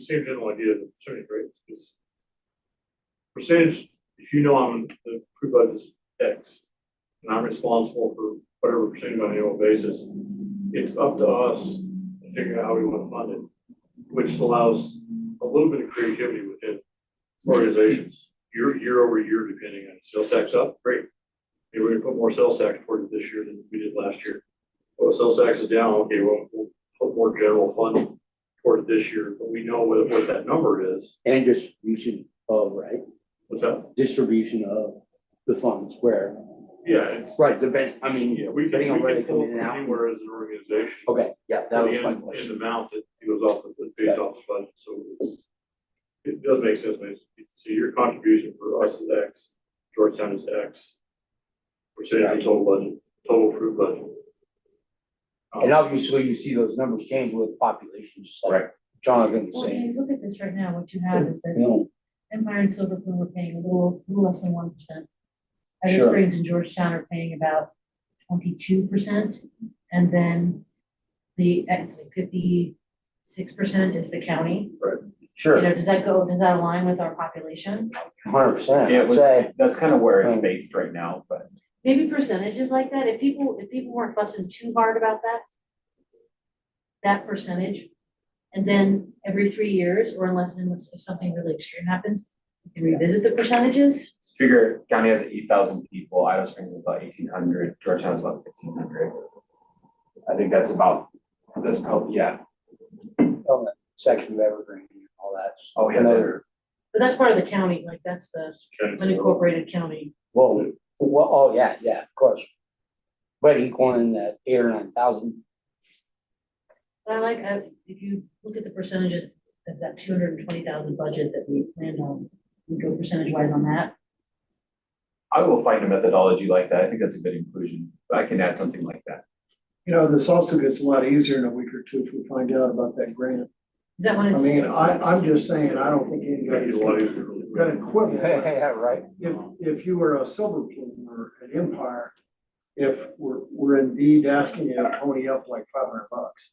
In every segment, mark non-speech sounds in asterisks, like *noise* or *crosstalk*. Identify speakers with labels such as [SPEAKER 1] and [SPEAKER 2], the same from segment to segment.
[SPEAKER 1] same general idea of the percentage rates, because percentage, if you know I'm, the pre-budget is X, and I'm responsible for whatever percentage on an annual basis, it's up to us to figure out how we wanna fund it, which allows a little bit of creativity within organizations, year, year over year, depending on sales tax up, great. Maybe we're gonna put more sales tax toward it this year than we did last year. Well, sales tax is down, okay, well, we'll put more general fund toward it this year, but we know what, what that number is.
[SPEAKER 2] And distribution of, right,
[SPEAKER 1] What's that?
[SPEAKER 2] distribution of the funds where,
[SPEAKER 1] Yeah, it's,
[SPEAKER 2] right, the ben, I mean,
[SPEAKER 1] yeah, we can,
[SPEAKER 2] Depending on
[SPEAKER 1] we
[SPEAKER 2] where
[SPEAKER 1] can
[SPEAKER 2] they
[SPEAKER 1] pull
[SPEAKER 2] come in
[SPEAKER 1] from
[SPEAKER 2] and out.
[SPEAKER 1] anywhere as an organization.
[SPEAKER 2] okay, yeah, that
[SPEAKER 1] for the
[SPEAKER 2] was my
[SPEAKER 1] end-
[SPEAKER 2] question.
[SPEAKER 1] End amount that goes off the, that pays off the budget, so it's, it does make sense, man. So your contribution for us is X, Georgetown is X. Percentage of total budget, total approved budget. Um,
[SPEAKER 2] And obviously, you see those numbers change with population, just like
[SPEAKER 3] Right.
[SPEAKER 2] Jonathan was
[SPEAKER 4] Well, when
[SPEAKER 2] saying.
[SPEAKER 4] you look at this right now, what you have is
[SPEAKER 2] You
[SPEAKER 4] that
[SPEAKER 2] know,
[SPEAKER 4] Empire and Silver Plume are paying a little, little less than one percent. Other
[SPEAKER 2] Sure.
[SPEAKER 4] Springs and Georgetown are paying about twenty-two percent, and then the, it's like fifty-six percent is the county. You
[SPEAKER 2] Sure,
[SPEAKER 4] know, does that go, does that align with our population?
[SPEAKER 2] hundred percent,
[SPEAKER 3] Yeah, it
[SPEAKER 2] I'd
[SPEAKER 3] was,
[SPEAKER 2] say,
[SPEAKER 3] that's kind of where it's
[SPEAKER 2] Um,
[SPEAKER 3] based right now, but
[SPEAKER 4] Maybe percentages like that, if people, if people weren't fussing too hard about that, that percentage, and then every three years, or unless, unless if something really extreme happens, you can revisit the percentages.
[SPEAKER 3] just figure county has eight thousand people, Idaho Springs is about eighteen hundred, Georgetown is about fifteen hundred. I think that's about, that's probably, yeah,
[SPEAKER 2] oh, that section of Evergreen, and all that.
[SPEAKER 3] Oh, yeah,
[SPEAKER 2] Another,
[SPEAKER 4] But that's part of the county, like that's the
[SPEAKER 1] county general.
[SPEAKER 4] unincorporated county.
[SPEAKER 2] well, well, oh, yeah, yeah, of course. But equaling that eight or nine thousand,
[SPEAKER 4] But I like, I, if you look at the percentages of that two hundred and twenty thousand budget that we planned on, we go percentage wise on that.
[SPEAKER 3] I will find a methodology like that, I think that's a good inclusion, but I can add something like that.
[SPEAKER 5] You know, this also gets a lot easier in a week or two if we find out about that grant.
[SPEAKER 4] Is that when
[SPEAKER 5] I
[SPEAKER 4] it's?
[SPEAKER 5] mean, I, I'm just saying, I don't think
[SPEAKER 1] That'd
[SPEAKER 5] anybody's
[SPEAKER 1] be a lot
[SPEAKER 5] gonna
[SPEAKER 1] easier. to-
[SPEAKER 5] gonna quibble.
[SPEAKER 2] *laughs*
[SPEAKER 5] If,
[SPEAKER 2] yeah, right,
[SPEAKER 5] if you were a Silver Plume or an Empire, if we're, we're indeed asking you to pony up like five hundred bucks.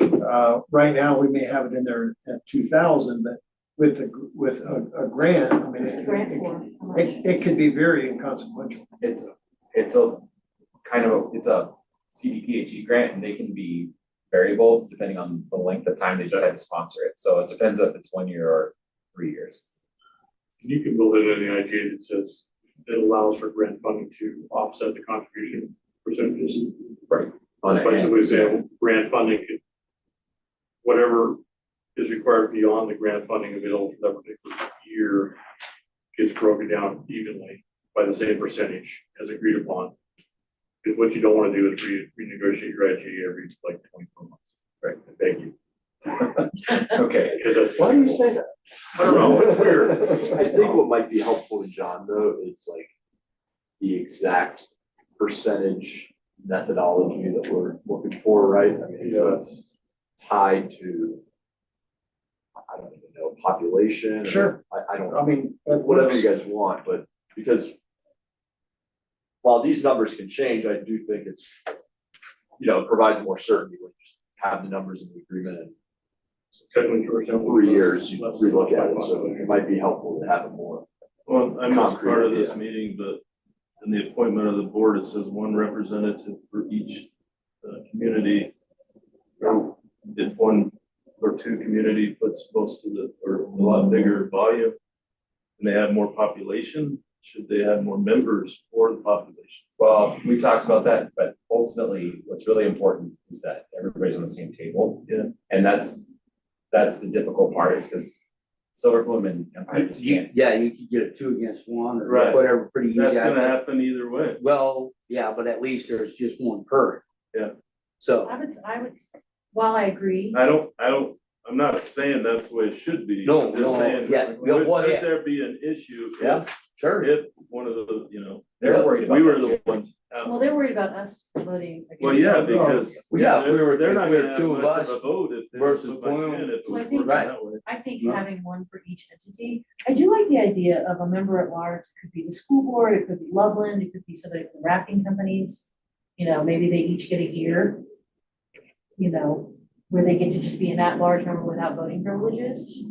[SPEAKER 5] Uh, right now, we may have it in there at two thousand, but with a, with a, a grant, I mean,
[SPEAKER 4] What's the
[SPEAKER 5] it,
[SPEAKER 4] grant
[SPEAKER 5] it-
[SPEAKER 4] for? How much?
[SPEAKER 5] it, it could be very inconsequential.
[SPEAKER 3] It's, it's a kind of, a- it's a CDPHE E grant and they can be variable depending on the length of time they decide to sponsor it, so it depends if it's one year or three years.
[SPEAKER 1] You can build it in the IGA that says it allows for grant funding to offset the contribution percentages.
[SPEAKER 3] On
[SPEAKER 1] That's
[SPEAKER 3] that end.
[SPEAKER 1] basically saying grant funding could, whatever is required beyond the grant funding available for that particular year gets broken down evenly by the same percentage as agreed upon. Because what you don't want to do is re- renegotiate your IG every like twenty-four months. Right. Thank you.
[SPEAKER 3] Okay.
[SPEAKER 1] Because that's.
[SPEAKER 3] that?
[SPEAKER 1] I don't know, it's weird.
[SPEAKER 6] I think what might be helpful to John though is like the exact percentage methodology that we're looking for, right? I mean, so it's tied to, I don't even know, population. or-
[SPEAKER 5] Sure.
[SPEAKER 6] I, I don't,
[SPEAKER 5] I mean, that
[SPEAKER 6] whatever
[SPEAKER 5] works.
[SPEAKER 6] you guys want, but because while these numbers can change, I do think it's, you know, it provides more certainty when you just have the numbers in the agreement and
[SPEAKER 1] Technically, for
[SPEAKER 6] in
[SPEAKER 1] example,
[SPEAKER 6] three
[SPEAKER 1] less-
[SPEAKER 6] years, you
[SPEAKER 1] less
[SPEAKER 6] relook at
[SPEAKER 1] than
[SPEAKER 6] it, so it might be helpful to have it more.
[SPEAKER 7] Well, I missed part of
[SPEAKER 6] Concrete,
[SPEAKER 7] this
[SPEAKER 6] yeah.
[SPEAKER 7] meeting, but in the appointment of the board, it says one representative for each uh, community. Or If one or two community puts most of the, or a lot bigger volume, and they have more population, should they have more members for the population?
[SPEAKER 3] Well, we talked about that, but ultimately, what's really important is that everybody's on the same table.
[SPEAKER 7] Yeah.
[SPEAKER 3] And that's, that's the difficult part, is because Silver Plume and Empire just
[SPEAKER 2] You-
[SPEAKER 3] can't.
[SPEAKER 2] yeah, you could get a two against one or
[SPEAKER 7] Right.
[SPEAKER 2] whatever, pretty easy.
[SPEAKER 7] That's
[SPEAKER 2] I
[SPEAKER 7] gonna
[SPEAKER 2] think.
[SPEAKER 7] happen either way.
[SPEAKER 2] Well, yeah, but at least there's just one per.
[SPEAKER 7] Yeah.
[SPEAKER 2] So,
[SPEAKER 4] I would, I would, while I agree,
[SPEAKER 7] I don't, I don't, I'm not saying that's the way it should be.
[SPEAKER 2] No,
[SPEAKER 7] I'm
[SPEAKER 2] no,
[SPEAKER 7] just saying,
[SPEAKER 2] yeah,
[SPEAKER 7] would
[SPEAKER 2] yeah, what
[SPEAKER 7] would
[SPEAKER 2] if?
[SPEAKER 7] there be an issue if
[SPEAKER 2] yeah, sure.
[SPEAKER 7] if one of the, you know,
[SPEAKER 3] They're worried about
[SPEAKER 7] we were
[SPEAKER 3] that
[SPEAKER 7] the
[SPEAKER 3] too.
[SPEAKER 7] ones out.
[SPEAKER 5] Uh,
[SPEAKER 4] well, they're worried about us voting against.
[SPEAKER 7] Well, yeah, because
[SPEAKER 2] Well, yeah, if we
[SPEAKER 7] they're,
[SPEAKER 2] were-
[SPEAKER 7] they're
[SPEAKER 2] if
[SPEAKER 7] not
[SPEAKER 2] we were
[SPEAKER 7] gonna have
[SPEAKER 2] two of
[SPEAKER 7] much
[SPEAKER 2] us
[SPEAKER 7] of a vote if they
[SPEAKER 2] versus
[SPEAKER 7] put much
[SPEAKER 2] Bloom.
[SPEAKER 7] in, if it
[SPEAKER 4] So I
[SPEAKER 7] was
[SPEAKER 4] think-
[SPEAKER 7] working that way.
[SPEAKER 4] I think
[SPEAKER 2] No.
[SPEAKER 4] having one for each entity, I do like the idea of a member at large, it could be the school board, it could be Loveland, it could be somebody from the rafting companies. You know, maybe they each get a year. You know, where they get to just be an at-large member without voting privileges.